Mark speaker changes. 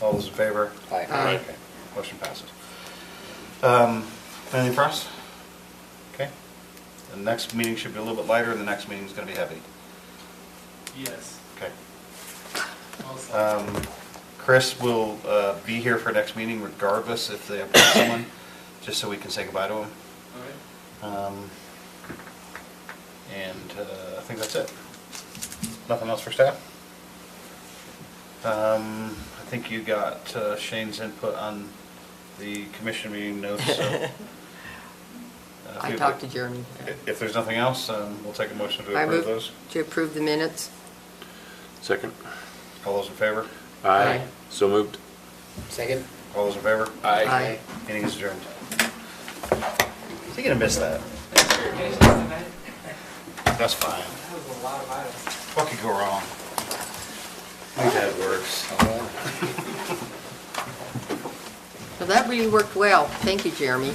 Speaker 1: All those in favor?
Speaker 2: Aye.
Speaker 3: Aye.
Speaker 1: Okay, Motion passes. Um, Anything for us? Okay. The next meeting should be a little bit lighter, and the next meeting's going to be heavy.
Speaker 4: Yes.
Speaker 1: Okay.
Speaker 4: also.
Speaker 1: Um, Chris will uh, be here for next meeting regardless if they appoint someone, just so we can say goodbye to him.
Speaker 4: All right.
Speaker 1: Um, And uh, I think that's it. Nothing else for staff? Um, I think you got uh, Shane's input on the commission meeting notes, so. uh, if
Speaker 3: I
Speaker 1: you-
Speaker 3: talked to Jeremy.
Speaker 1: If there's nothing else, um, we'll take a motion to
Speaker 3: I
Speaker 1: approve
Speaker 3: move
Speaker 1: those.
Speaker 3: To approve the minutes.
Speaker 5: Second.
Speaker 1: All those in favor?
Speaker 3: Aye.
Speaker 5: So moved.
Speaker 2: Second?
Speaker 1: All those in favor?
Speaker 3: Aye.
Speaker 1: Meeting is adjourned. Is he gonna miss that?
Speaker 4: tonight,
Speaker 1: That's fine.
Speaker 4: that was a lot of items.
Speaker 1: What could go wrong? We've had worse.
Speaker 3: So that really worked well. Thank you, Jeremy.